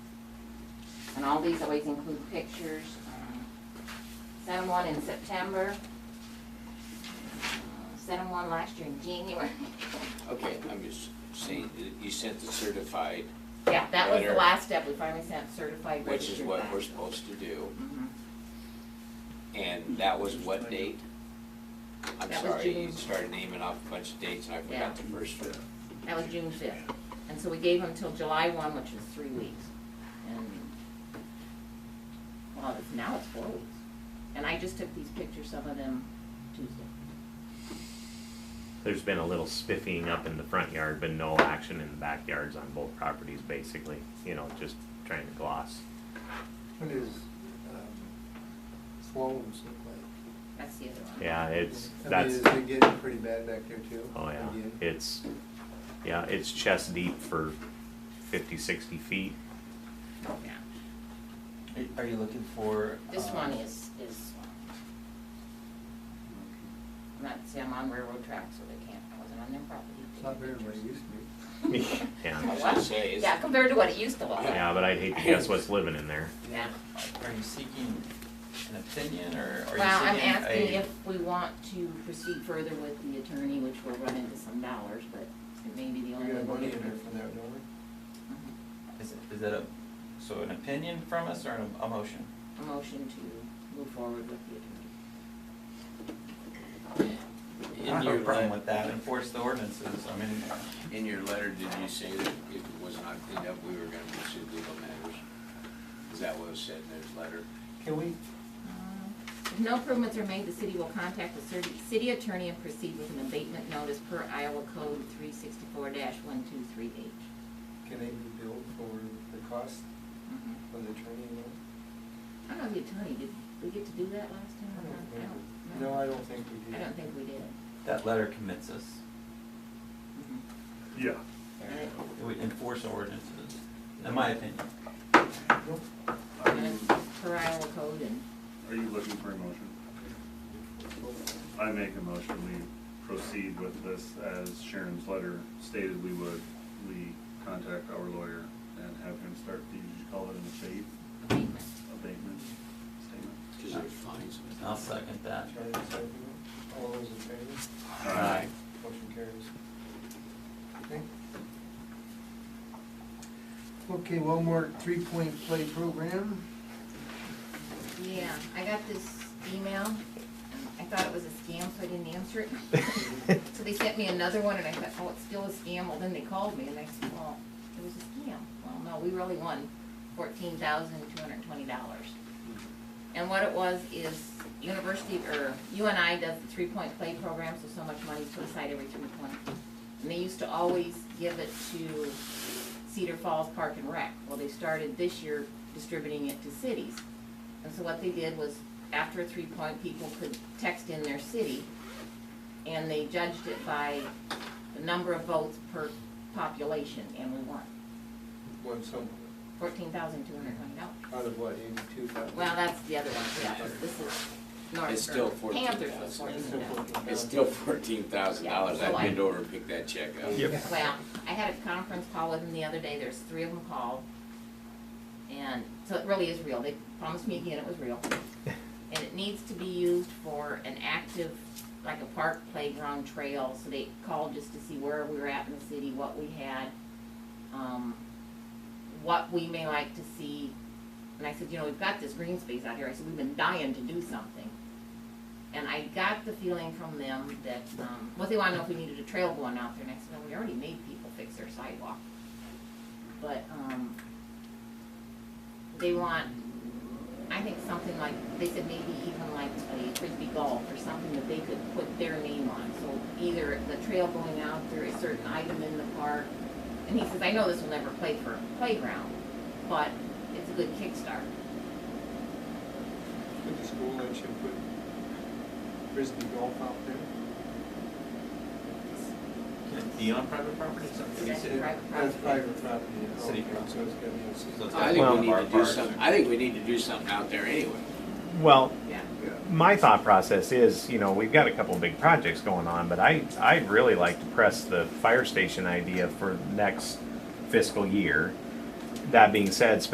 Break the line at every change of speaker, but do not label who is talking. all these always include pictures. Um, Sent them one in September. Sent them one last year in January.
Okay, I'm just saying, that you sent the certified,
Yeah, that was the
Letter.
last step, we finally sent certified
which is
registered
what we're
back.
supposed to do,
Mhm.
and that was what date?
That
I'm
was
sorry,
June.
you started naming off a bunch of dates, and I
Yeah.
forgot the first one.
That was June fifth, and so we gave them till July one, which was three weeks, and, well, it's, now it's four weeks. And I just took these pictures, some of them Tuesday.
There's been a little spiffing up in the front yard, but no action in the backyards on both properties, basically, you know, just trying to gloss.
What is um, Sloan's look like?
That's the other one.
Yeah, it's,
I mean,
that's,
is it getting pretty bad back there too?
oh yeah,
Again?
it's, yeah, it's chest deep for fifty, sixty feet.
Oh, Yeah.
Are- Are you looking for?
This
um,
one is, is, I'm not, see, I'm on railroad tracks, so they can't, I wasn't on their property.
It's not very what it used to
Yeah,
I should say, is,
Yeah, compared to what it used to look like,
yeah, but I'd hate to guess what's living in there.
yeah.
Are you seeking an opinion or are you seeking a?
Well, I'm asking if we want to proceed further with the attorney, which will run into some dollars, but it may be the
be.
only
We got
way.
money
we'll get
in
Uh-huh.
there
her.
for that, don't we?
Is it, is that a, so an opinion from us or an- a motion?
A motion to move forward with the attorney.
I
in
don't have
your
a problem
let-
with that, enforce the ordinances, I mean,
In your letter, did you say that if it was not cleaned up, we were gonna pursue legal matters? Is that what was said in his letter?
Can we,
If Um, no improvements are made, the city will contact the city, city attorney and proceed with an abatement notice per Iowa Code three sixty-four one two three H.
can they be billed for the cost of the attorney? and all?
Mm-hmm. I don't know, the attorney, did we get to do that last time or not? I don't know.
No, I don't think we
I
do.
don't think we did. Mm-hmm.
that letter commits us.
Yeah.
It would enforce ordinances, in my opinion.
Nope.
Are you,
And Per Iowa Code and,
are you looking for a motion? I make a motion, we proceed with this as Sharon's letter stated we would. We contact our lawyer and have him start the, did you call it an abate,
abatement.
abatement statement?
Cause there's fines.
I'll second that.
Charlie, is that you? All those in favor?
Aye.
Motion carries. Okay. Okay, one more three-point play program.
Yeah, I got this email, and I thought it was a scam, so I didn't answer it. So they sent me another one, and I thought, oh, it's still a scam, well, then they called me, and I said, well, it was a scam. Well, no, we really won fourteen thousand two hundred and twenty dollars. And what it was is university, or UNI does the three-point play program, so so much money's put aside every three point. And they used to always give it to Cedar Falls Park and Rec. Well, they started this year distributing it to cities. And so what they did was, after a three-point, people could text in their city, and they judged it by the number of votes per population, and we won.
One, so,
Fourteen thousand two hundred twenty dollars.
out of what, eighty-two thousand?
Well, that's the other one, yeah, but this is North.
It's still
or Panthers was
14,000.
fourteen thousand.
It's still fourteen thousand dollars,
Yeah, so I-
I bend over and pick that check up.
Yep.
Well, I had a conference call with them the other day, there's three of them called. And, so it really is real, they promised me again it was real. And it needs to be used for an active, like a park playground trail, so they called just to see where we were at in the city, what we had. Um, what we may like to see, and I said, you know, we've got this green space out here, I said, we've been dying to do something. And I got the feeling from them that, um, well, they wanna know if we needed a trail going out there, and I said, well, we already made people fix their sidewalk. But, um, they want, I think something like, they said maybe even like a frisbee golf or something that they could put their name on. So either the trail going out there, a certain item in the park, and he says, I know this will never play for a playground, but it's a good kickstart.
Could the school let you put frisbee golf out there?
Can it be on private property? It's up to the
That's
city.
private
That's
property.
private property. yeah.
City
Okay, So it's gonna be a city.
So it's-
I think
Well-
we need to do
Parks.
some, I think we need to do something out there anyway.
Well,
Yeah.
Yeah.
my thought process is, you know, we've got a couple big projects going on, but I, I really like to press the fire station idea for next fiscal year. That being said,